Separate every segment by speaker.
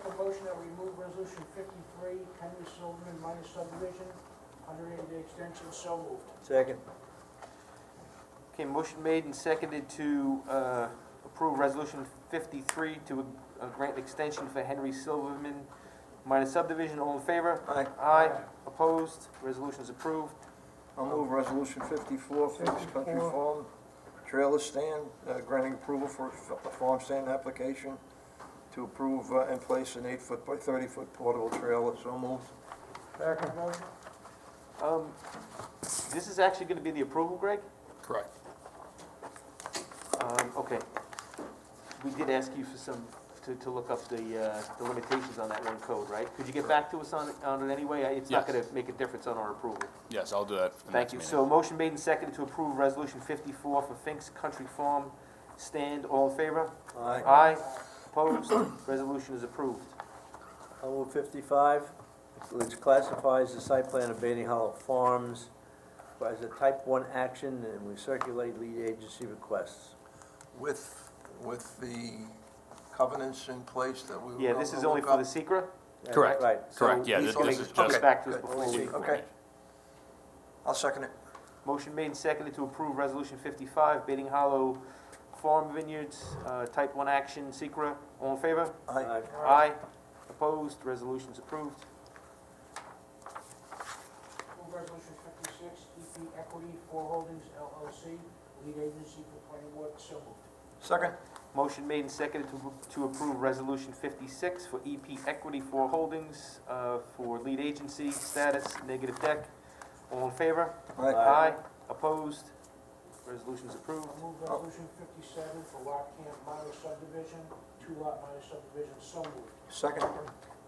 Speaker 1: shall remove resolution fifty-three, Henry Silverman minor subdivision, hundred eighty day extension, so moved.
Speaker 2: Second.
Speaker 3: Okay, motion made and seconded to uh, approve Resolution 53 to uh, grant extension for Henry Silverman minor subdivision. All in favor?
Speaker 2: Aye.
Speaker 3: Aye. Opposed? Resolution's approved.
Speaker 2: I'll move resolution fifty-four, Phoenix Country Farm Trailer Stand, uh, granting approval for a fa- a farm stand application to approve uh, and place an eight-foot by thirty-foot portable trailer, so moved.
Speaker 1: Second. Motion?
Speaker 3: Um, This is actually going to be the approval, Greg?
Speaker 4: Correct.
Speaker 3: Um, Okay. We did ask you for some, to to look up the uh, the limitations on that one code, right? Could you get back to us on it- on it anyway? I- It's not
Speaker 4: Yes.
Speaker 3: going to make a difference on our approval.
Speaker 4: Yes, I'll do that. for the
Speaker 3: Thank
Speaker 4: next
Speaker 3: you.
Speaker 4: meeting.
Speaker 3: So motion made and seconded to approve Resolution 54 for Fink's Country Farm Stand. All in favor?
Speaker 2: Aye.
Speaker 3: Aye. Opposed? Resolution is approved.
Speaker 5: I'll move fifty-five, which classifies the site plan of Bailey Hollow Farms as a type one action, and we circulate lead agency requests.
Speaker 2: With, with the covenants in place that we were
Speaker 3: Yeah, this
Speaker 2: gonna
Speaker 3: is only
Speaker 2: look
Speaker 3: for the
Speaker 2: up.
Speaker 3: secret.
Speaker 5: That's
Speaker 4: Correct.
Speaker 5: Right.
Speaker 4: Correct, yeah,
Speaker 3: He's
Speaker 4: this
Speaker 3: gonna
Speaker 4: this is
Speaker 3: come
Speaker 4: just,
Speaker 3: back to us
Speaker 2: Good.
Speaker 3: before we.
Speaker 2: Okay. I'll second it.
Speaker 3: Motion made and seconded to approve Resolution 55, Bating Hollow Farm Vineyards, uh, Type 1 Action, Secra. All in favor?
Speaker 2: Aye.
Speaker 5: Aye.
Speaker 3: Aye. Opposed? Resolution's approved.
Speaker 1: Move resolution fifty-six, EP Equity Four Holdings LLC, lead agency for planning board, so moved.
Speaker 2: Second?
Speaker 3: Motion made and seconded to to approve Resolution 56 for EP Equity for Holdings uh, for lead agency status, negative deck. All in favor?
Speaker 2: Aye.
Speaker 3: Aye. Opposed? Resolution's approved.
Speaker 1: I move resolution fifty-seven for lot camp minor subdivision, two lot minor subdivision, so moved.
Speaker 2: Second?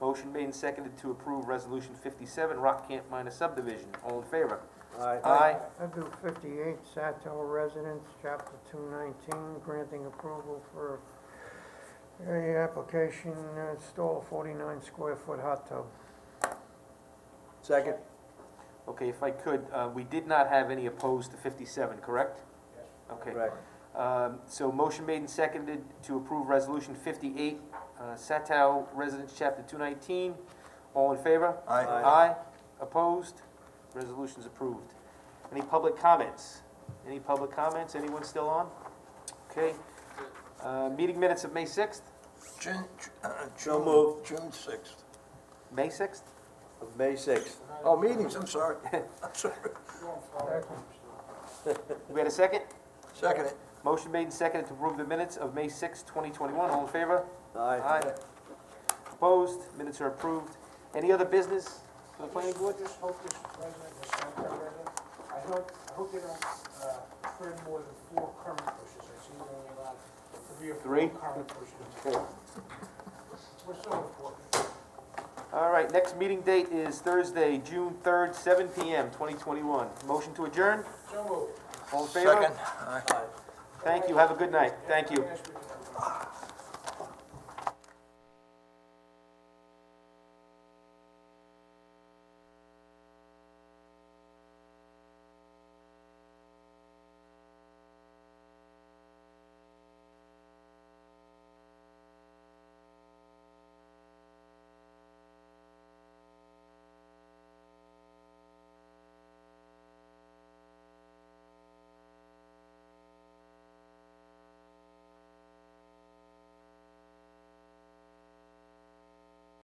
Speaker 3: Motion made and seconded to approve Resolution 57, Rock Camp Minor Subdivision. All in favor?
Speaker 5: Aye.
Speaker 3: Aye.
Speaker 6: I do fifty-eight, Satel Residence, chapter two nineteen, granting approval for a application, uh, install forty-nine square foot hot tub.
Speaker 5: Second,
Speaker 3: Okay, if I could, uh, we did not have any opposed to 57, correct?
Speaker 1: Yes.
Speaker 3: Okay.
Speaker 5: correct.
Speaker 3: Um, So motion made and seconded to approve Resolution 58, uh, Satow Residence, Chapter 219. All in favor?
Speaker 2: Aye.
Speaker 3: Aye. Opposed? Resolution's approved. Any public comments? Any public comments? Anyone still on? Okay. Uh, Meeting minutes of May 6th?
Speaker 2: June, uh,
Speaker 5: So
Speaker 2: June,
Speaker 5: moved.
Speaker 2: June sixth.
Speaker 3: May 6th?
Speaker 5: Of May sixth.
Speaker 2: Oh, meetings, I'm sorry. I'm sorry.
Speaker 3: We had a second?
Speaker 2: Second it.
Speaker 3: Motion made and seconded to approve the minutes of May 6th, 2021. All in favor?
Speaker 5: Aye.
Speaker 3: Aye. Opposed? Minutes are approved. Any other business for the planning board?
Speaker 1: I just hope this president, this Senate president, I hope, I hope they don't, uh, trim more than four current bushes, I see they're only allowed three or
Speaker 3: Three?
Speaker 1: four current bushes. We're so important.
Speaker 3: All right, next meeting date is Thursday, June 3rd, 7 PM, 2021. Motion to adjourn?
Speaker 1: So moved.
Speaker 3: All in favor?
Speaker 2: Second. Aye.
Speaker 3: Thank you, have a good night, thank you.
Speaker 1: Yes, we do.